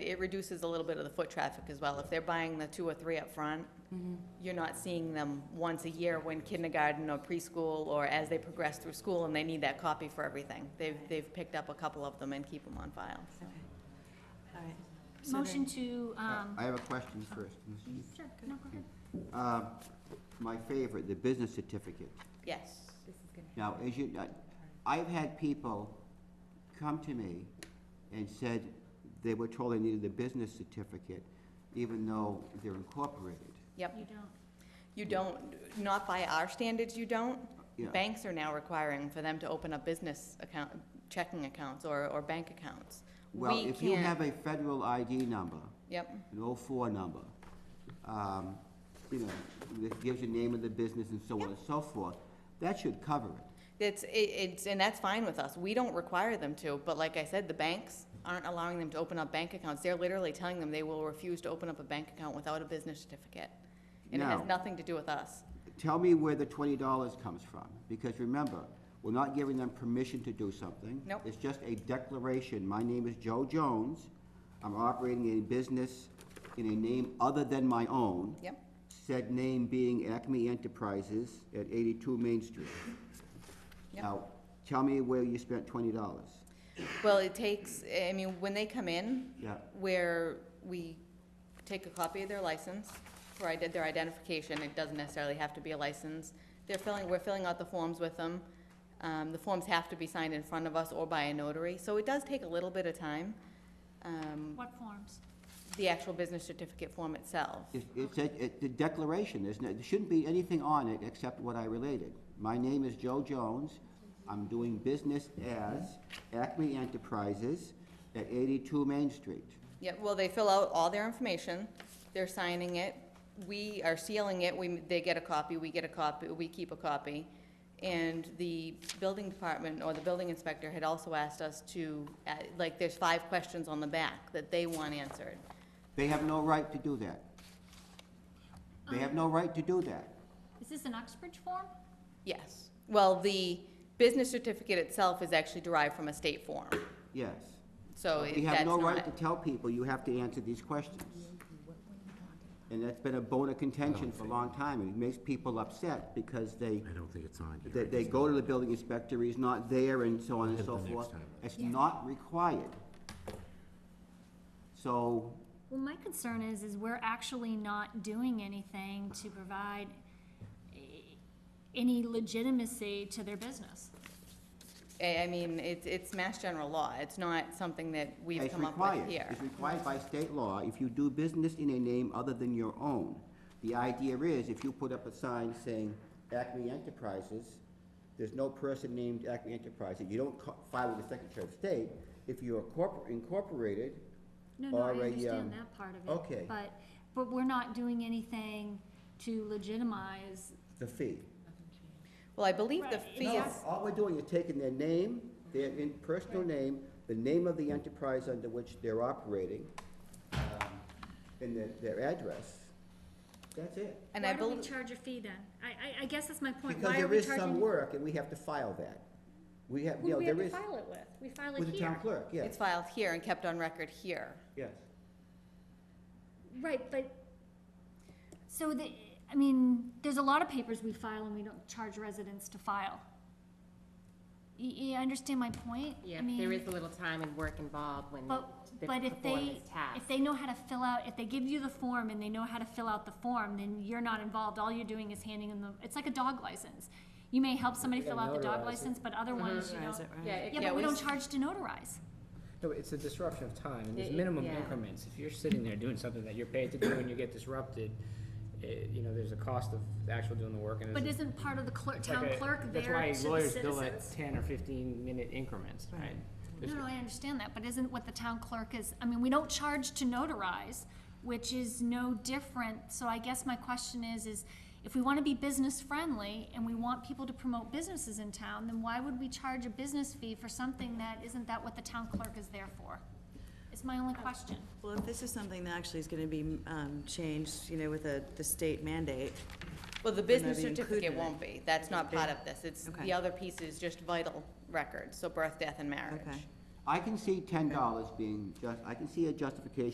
it reduces a little bit of the foot traffic as well. If they're buying the two or three up front, you're not seeing them once a year when kindergarten or preschool or as they progress through school and they need that copy for everything. They've, they've picked up a couple of them and keep them on file, so. Okay. All right. So then- Motion to, Uh, I um, Uh, I have a question first. Ms. Heath. sure, no, go ahead. Uh, My favorite, the business certificate. Yes, Now, as you, uh, I've had people come to me and said they were told they needed the business certificate, even though they're incorporated. yep. You don't, You don't, not by our standards, you don't. Yeah. Banks are now requiring for them to open up business account, checking accounts or, or bank accounts. Well, We if you can't- have a federal ID number, Yep, an oh-four number, um, you know, that gives your name of the business and so on and so forth, that should cover it. it's, it- it's, and that's fine with us. We don't require them to, but like I said, the banks aren't allowing them to open up bank accounts. They're literally telling them they will refuse to open up a bank account without a business certificate. And it has Now- nothing to do with us. Tell me where the twenty dollars comes from, because remember, we're not giving them permission to do something. Nope. It's just a declaration, my name is Joe Jones, I'm operating a business in a name other than my own. Yep. Said name being Acme Enterprises at eighty-two Main Street. Yep. Now, tell me where you spent twenty dollars. Well, it takes, I mean, when they come in, Yeah, where we take a copy of their license for ide- their identification, it doesn't necessarily have to be a license. They're filling, we're filling out the forms with them. Um, the forms have to be signed in front of us or by a notary, so it does take a little bit of time. Um, what forms? the actual business certificate form itself. it, it's a, it, the declaration, there's no, there shouldn't be anything on it except what I related. My name is Joe Jones, I'm doing business as Acme Enterprises at eighty-two Main Street. Yeah, well, they fill out all their information, they're signing it, we are sealing it, we, they get a copy, we get a copy, we keep a copy. And the building department or the building inspector had also asked us to, uh, like, there's five questions on the back that they want answered. They have no right to do that. They have no right to do that. Is this an Uxbridge form? Yes, well, the business certificate itself is actually derived from a state form, Yes. so it- We that's have no not, right to tell people you have to answer these questions. And that's been a bone of contention for a long time, and it makes people upset because they, I don't think it's on here. they, they go to the building inspector, he's not there, and so on and Hit so the next forth. time. It's not required. So, Well, my concern is, is we're actually not doing anything to provide eh, any legitimacy to their business. I, I mean, it's, it's mass general law, it's not something that we've it's come up with required. here. It's required by state law if you do business in a name other than your own. The idea is, if you put up a sign saying Acme Enterprises, there's no person named Acme Enterprises, you don't co- file with the Secretary of State. If you're corpor- incorporated, No, no, I Or a, um, understand that part of it. okay. But, but we're not doing anything to legitimize, the fee. Well, I believe the Right, fee No, is, All we're doing is taking their name, their in- personal name, the name of the enterprise under which they're operating, um, and their, their address. That's it. and I why do we believe. charge a fee then? I, I, I guess that's my point. Because Why are there we is some charging? work, and we have to file that. We have, Who you do know, we have there to is, file it with? We file it with the town here. clerk, yes, It's filed here and kept on record here. yes. Right, but, so the, I mean, there's a lot of papers we file and we don't charge residents to file. You, you understand my point? I Yeah, there mean, is a little time and work involved when But, the but if they, performance task. if they know how to fill out, if they give you the form and they know how to fill out the form, then you're not involved, all you're doing is handing them the, it's like a dog license. You may help somebody fill out the Notarize dog it. license, but other Mm-hmm. ones you Notarize don't. it, right. Yeah, it- Yeah, but we we don't s- charge to notarize. No, it's a disruption of time, and there's Yeah, minimum yeah. increments. If you're sitting there doing something that you're paid to do and you get disrupted, eh, you know, there's a cost of actual doing the work and But there's. isn't part of the clerk, it's like town a- clerk there to the That's citizens? why lawyers bill at ten or fifteen minute increments, right? There's- No, no, I understand that, but isn't what the town clerk is, I mean, we don't charge to notarize, which is no different, so I guess my question is, is if we wanna be business friendly and we want people to promote businesses in town, then why would we charge a business fee for something that, isn't that what the town clerk is there for? Is my only question. Well, if this is something that actually is gonna be, um, changed, you know, with a, the state mandate, Well, the They're not business even certificate included in it. won't be. That's not part of this. It's, Okay. the other piece is just vital records, so birth, death, and marriage. okay. I can see ten dollars being just, I can see a justification